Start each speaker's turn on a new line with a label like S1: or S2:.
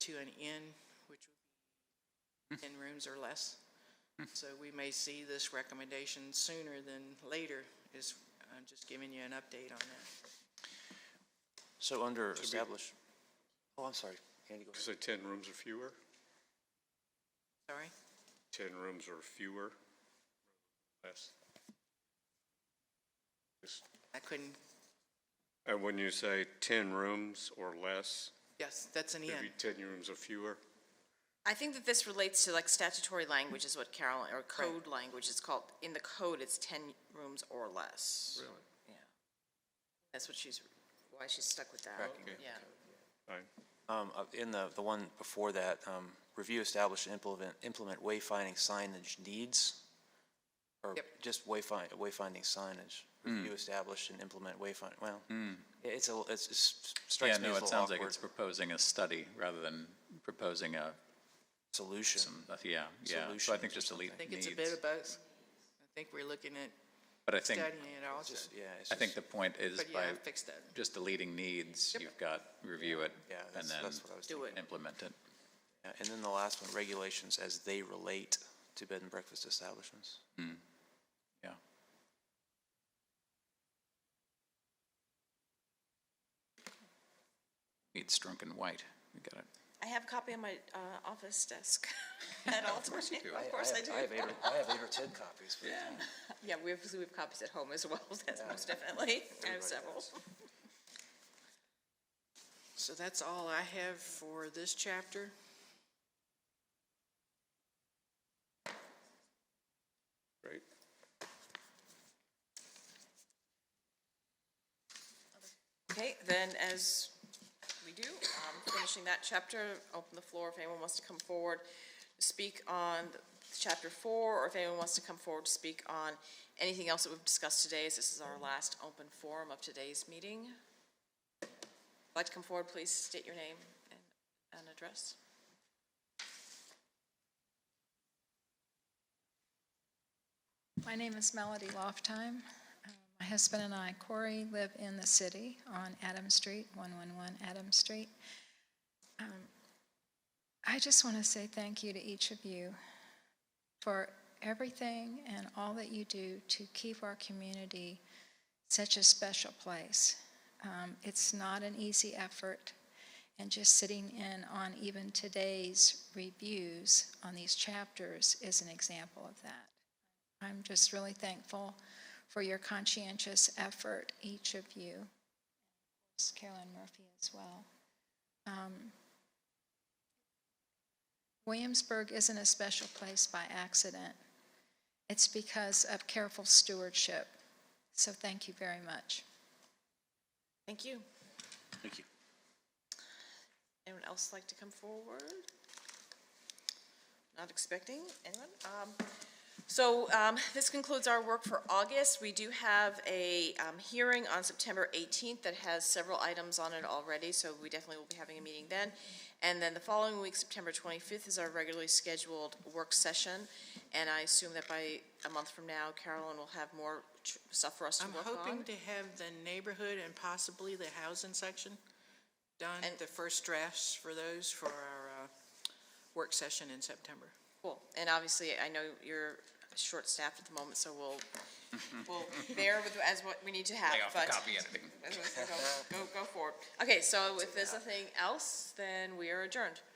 S1: to an inn, which
S2: Mm.
S1: would be 10 rooms or less. So we may see this recommendation sooner than later, is, I'm just giving you an update on that.
S3: So under establish, oh, I'm sorry, Andy, go ahead.
S4: Say 10 rooms or fewer?
S1: Sorry?
S4: 10 rooms or fewer? Less. Yes.
S1: I couldn't,
S4: And when you say 10 rooms or less,
S1: yes, that's an inn.
S4: maybe 10 rooms or fewer?
S5: I think that this relates to like statutory language is what Carol, or code language is called. In the code, it's ten rooms or less.
S4: Really?
S5: Yeah. That's what
S2: Oh,
S5: she's, why she's stuck with that.
S4: Okay.
S5: Yeah.
S4: Fine.
S3: Um, uh, in the, the one before that, um, review, establish, and implement, implement wayfinding signage needs? Or
S1: Yep.
S3: just wayfind, wayfinding signage?
S2: Hmm.
S3: Review, establish, and implement wayfind, well, it- it's a, little- it's, it's
S2: Yeah,
S3: strikes me
S2: no,
S3: as a
S2: it
S3: little
S2: sounds like
S3: awkward
S2: it's proposing a study rather than proposing a,
S3: solution.
S2: some, yeah, yeah. So I think
S3: Solutions or
S2: just delete
S1: I think it's
S2: needs.
S1: a bit of both. I think we're looking at
S2: But I think,
S1: studying it all,
S3: Just- Yeah, it's
S2: I think
S3: just-
S2: the point is
S1: but yeah,
S2: by
S1: I fixed that.
S2: just deleting needs, you've got review it
S3: Yeah,
S2: and
S3: that's,
S2: then
S3: that's what I was
S1: Do
S3: thinking.
S1: it.
S2: implement it.
S3: Yeah, And then the last one, regulations as they relate to bed and breakfast establishments.
S2: Yeah. Needs drunk and white. We got it.
S5: I have a copy on my, uh, office desk at all times.
S2: you do.
S5: Of course I do.
S3: I have eight, or- I have eight or ten copies. but-
S5: Yeah, we have, we have copies at home as well, that's most definitely. I have several.
S1: So that's all I have for this chapter.
S4: Great.
S5: Okay, then as we do, um, finishing that chapter, open the floor if anyone wants to come forward, to speak on the- chapter four, or if anyone wants to come forward to speak on anything else that we've discussed today, as this is our last open forum of today's meeting. If you'd Like to come forward, please state your name and, and address.
S6: My name is Melody Loftheim. Uh, My husband and I, Corey, live in the city on Adams Street, 111 Adams Street. Um, I just want to say thank you to each of you for everything and all that you do to keep our community such a special place. Um, It's not an easy effort, and just sitting in on even today's reviews on these chapters is an example of that. I'm just really thankful for your conscientious effort, each of you. It's Carolyn Murphy as well. Um, Williamsburg isn't a special place by accident. It's because of careful stewardship. So thank you very much.
S5: Thank you.
S3: Thank you.
S5: Anyone else like to come forward? Not expecting anyone. Um, So um, this concludes our work for August. We do have a um, hearing on September 18th that has several items on it already, so we definitely will be having a meeting then. And then the following week, September 25th, is our regularly scheduled work session. And I assume that by a month from now, Carolyn will have more tr- stuff for us to
S1: I'm
S5: work on.
S1: hoping to have the neighborhood and possibly the housing section done,
S5: And-
S1: the first drafts for those for our uh, work session in September.
S5: Cool, and obviously, I know you're short-staffed at the moment, so we'll, we'll bear with, as what we need to have, but. As I said, Go, go- go forward. Okay, so if there's nothing else, then we are adjourned.